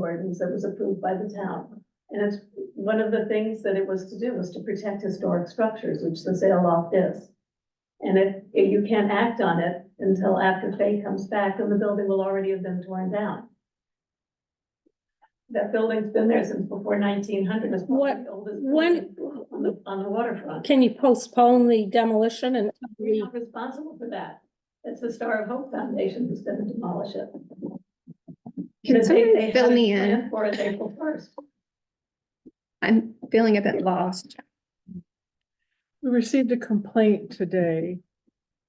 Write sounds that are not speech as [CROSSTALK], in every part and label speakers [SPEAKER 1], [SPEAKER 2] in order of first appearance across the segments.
[SPEAKER 1] ordinance that was approved by the town. And it's, one of the things that it was to do was to protect historic structures, which the sale loft is. And if, if you can't act on it until after Faye comes back, then the building will already have been torn down. That building's been there since before nineteen hundred, it's probably
[SPEAKER 2] What-
[SPEAKER 1] the oldest
[SPEAKER 2] when-
[SPEAKER 1] building on the, on the waterfront.
[SPEAKER 2] Can you postpone the demolition and
[SPEAKER 1] We're not responsible for that. It's the Star of Hope Foundation who's gonna demolish it.
[SPEAKER 3] Can
[SPEAKER 1] Because they-
[SPEAKER 3] somebody
[SPEAKER 1] they had
[SPEAKER 3] fill
[SPEAKER 1] it
[SPEAKER 3] me in?
[SPEAKER 1] planned For it April first.
[SPEAKER 3] I'm feeling a bit lost.
[SPEAKER 4] We received a complaint today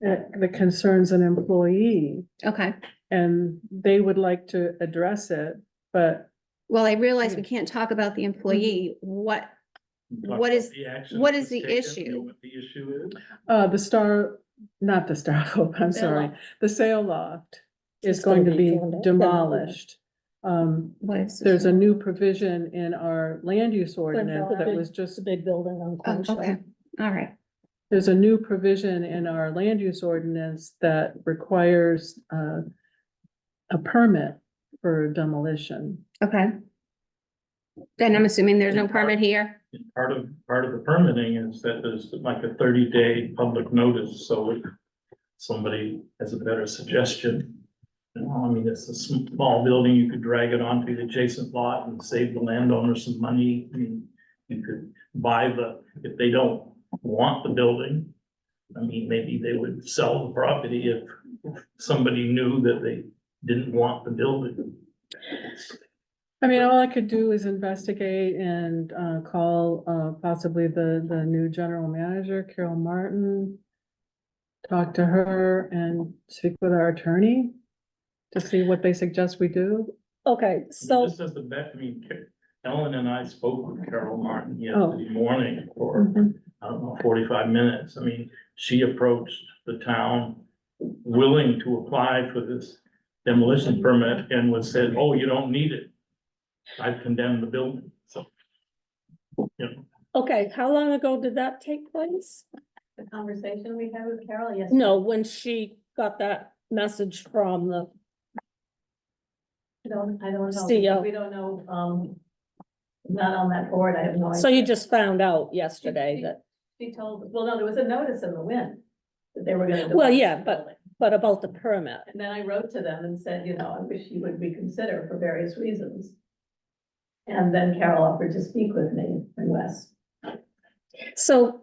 [SPEAKER 4] uh, that concerns an employee
[SPEAKER 3] Okay,
[SPEAKER 4] and they would like to address it, but
[SPEAKER 3] well, I realize we can't talk about
[SPEAKER 4] Mm-hmm.
[SPEAKER 3] the employee. What,
[SPEAKER 5] Talk
[SPEAKER 3] What
[SPEAKER 5] about
[SPEAKER 3] is-
[SPEAKER 5] the action
[SPEAKER 3] what
[SPEAKER 5] that
[SPEAKER 3] is
[SPEAKER 5] was
[SPEAKER 3] the
[SPEAKER 5] taken,
[SPEAKER 3] issue?
[SPEAKER 5] know What the issue is?
[SPEAKER 4] uh, the Star, not the Star [LAUGHS] Hope, I'm
[SPEAKER 1] Sale
[SPEAKER 4] sorry,
[SPEAKER 1] loft.
[SPEAKER 4] the sale loft is
[SPEAKER 2] It's
[SPEAKER 4] going
[SPEAKER 2] gonna
[SPEAKER 4] to
[SPEAKER 2] be
[SPEAKER 4] be
[SPEAKER 2] torn down.
[SPEAKER 4] demolished. Um,
[SPEAKER 3] what is?
[SPEAKER 4] there's a new provision in our land use ordinance that was
[SPEAKER 2] it's a
[SPEAKER 4] just,
[SPEAKER 2] big building on
[SPEAKER 3] Oh,
[SPEAKER 2] Queen
[SPEAKER 3] okay,
[SPEAKER 2] Street?
[SPEAKER 3] all right.
[SPEAKER 4] there's a new provision in our land use ordinance that requires, uh, a permit for demolition.
[SPEAKER 3] Okay. Then I'm assuming there's no permit here.
[SPEAKER 5] And Part of, part of the permitting is that there's like a thirty day public notice, so if somebody has a better suggestion. You know, I mean, it's a sm- small building, you could drag it onto the adjacent lot and save the landowner some money. I mean, you could buy the, if they don't want the building. I mean, maybe they would sell the property if somebody knew that they didn't want the building.
[SPEAKER 4] I mean, all I could do is investigate and uh call uh possibly the the new general manager, Carol Martin. Talk to her and speak with our attorney to see what they suggest we do.
[SPEAKER 2] Okay, so,
[SPEAKER 5] This is the best, I mean, Ca- Ellen and I spoke with Carol Martin
[SPEAKER 4] Oh.
[SPEAKER 5] yesterday morning
[SPEAKER 1] Mm-hmm.
[SPEAKER 5] for, I don't know, forty-five minutes. I mean, she approached the town willing to apply for this demolition permit and was said, oh, you don't need it. I've condemned the building, so. You know,
[SPEAKER 2] okay, how long ago did that take place?
[SPEAKER 1] The conversation we had with Carol yesterday.
[SPEAKER 2] No, when she got that message from the,
[SPEAKER 1] I don't, I don't know.
[SPEAKER 2] CEO.
[SPEAKER 1] We don't know, um, not on that board, I have no idea.
[SPEAKER 2] so you just found out yesterday that,
[SPEAKER 1] She told, well, no, there was a notice in the wind that they were gonna.
[SPEAKER 2] Well,
[SPEAKER 1] demolish
[SPEAKER 2] yeah,
[SPEAKER 1] the
[SPEAKER 2] but-
[SPEAKER 1] building.
[SPEAKER 2] but about the permit.
[SPEAKER 1] And then I wrote to them and said, you know, I wish you would reconsider for various reasons. And then Carol offered to speak with me and Wes.
[SPEAKER 2] So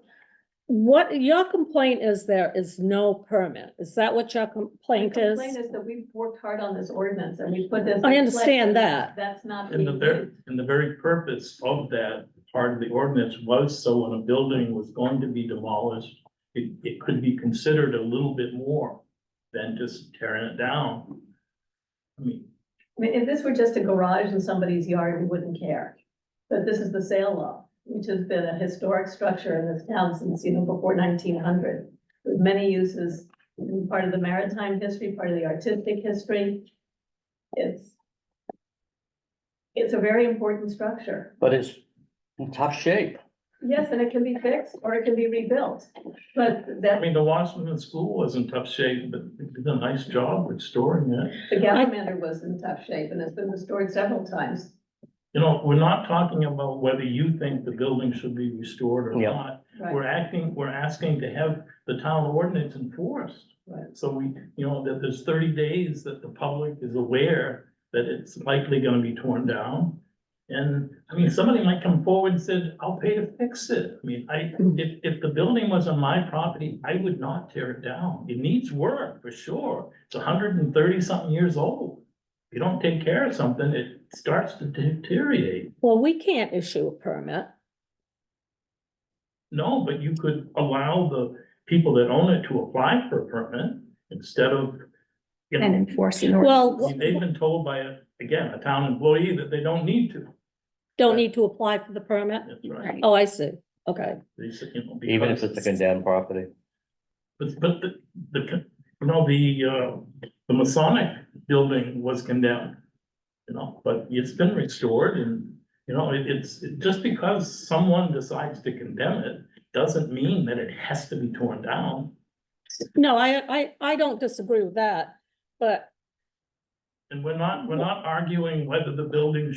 [SPEAKER 2] what, your complaint is there is no permit. Is that what your
[SPEAKER 1] My
[SPEAKER 2] complaint is?
[SPEAKER 1] complaint is that we've worked hard on this ordinance and we put this.
[SPEAKER 2] I
[SPEAKER 1] in
[SPEAKER 2] understand
[SPEAKER 1] place.
[SPEAKER 2] that.
[SPEAKER 1] That's not.
[SPEAKER 5] And the
[SPEAKER 1] being
[SPEAKER 5] very,
[SPEAKER 1] used.
[SPEAKER 5] and the very purpose of that part of the ordinance was so when a building was going to be demolished, it, it could be considered a little bit more than just tearing it down. I mean,
[SPEAKER 1] I mean, if this were just a garage in somebody's yard, we wouldn't care. But this is the sale law, which has been a historic structure in this town since, you know, before nineteen hundred. With many uses, and part of the maritime history, part of the artistic history. It's. It's a very important structure.
[SPEAKER 6] But it's in tough shape.
[SPEAKER 1] Yes, and it can be fixed or it can be rebuilt, but
[SPEAKER 5] I
[SPEAKER 1] that,
[SPEAKER 5] mean, the Washington School was in tough shape, but it did a nice job restoring it.
[SPEAKER 1] the Gallimander was in tough shape and it's been restored several times.
[SPEAKER 5] You know, we're not talking about whether you think the building should be restored or
[SPEAKER 6] Yeah.
[SPEAKER 5] not.
[SPEAKER 1] Right.
[SPEAKER 5] We're acting, we're asking to have the town ordinance enforced.
[SPEAKER 1] Right.
[SPEAKER 5] So we, you know, that there's thirty days that the public is aware that it's likely gonna be torn down. And, I mean, somebody might come forward and said, I'll pay to fix it. I mean, I, if, if the building was on my property, I would not tear it down. It needs work, for sure. It's hundred and thirty something years old. If you don't take care of something, it starts to deteriorate.
[SPEAKER 2] Well, we can't issue a permit.
[SPEAKER 5] No, but you could allow the people that own it to apply for a permit instead of, you
[SPEAKER 3] And
[SPEAKER 5] know,
[SPEAKER 3] enforcing. order.
[SPEAKER 2] Well,
[SPEAKER 5] I mean, they've been told by, a- again, a town employee that they don't need to.
[SPEAKER 2] don't need to apply for the permit?
[SPEAKER 5] That's
[SPEAKER 3] Right.
[SPEAKER 5] right.
[SPEAKER 2] Oh, I see. Okay.
[SPEAKER 5] They said, you know,
[SPEAKER 6] Even if
[SPEAKER 5] because
[SPEAKER 6] it's a condemned property.
[SPEAKER 5] But, but the, the, con- you know, the, uh, the Masonic building was condemned. You know, but it's been restored and, you know, it- it's, it- just because someone decides to condemn it doesn't mean that it has to be torn down.
[SPEAKER 2] No, I, I, I don't disagree with that, but
[SPEAKER 5] And we're not, we're not arguing whether the building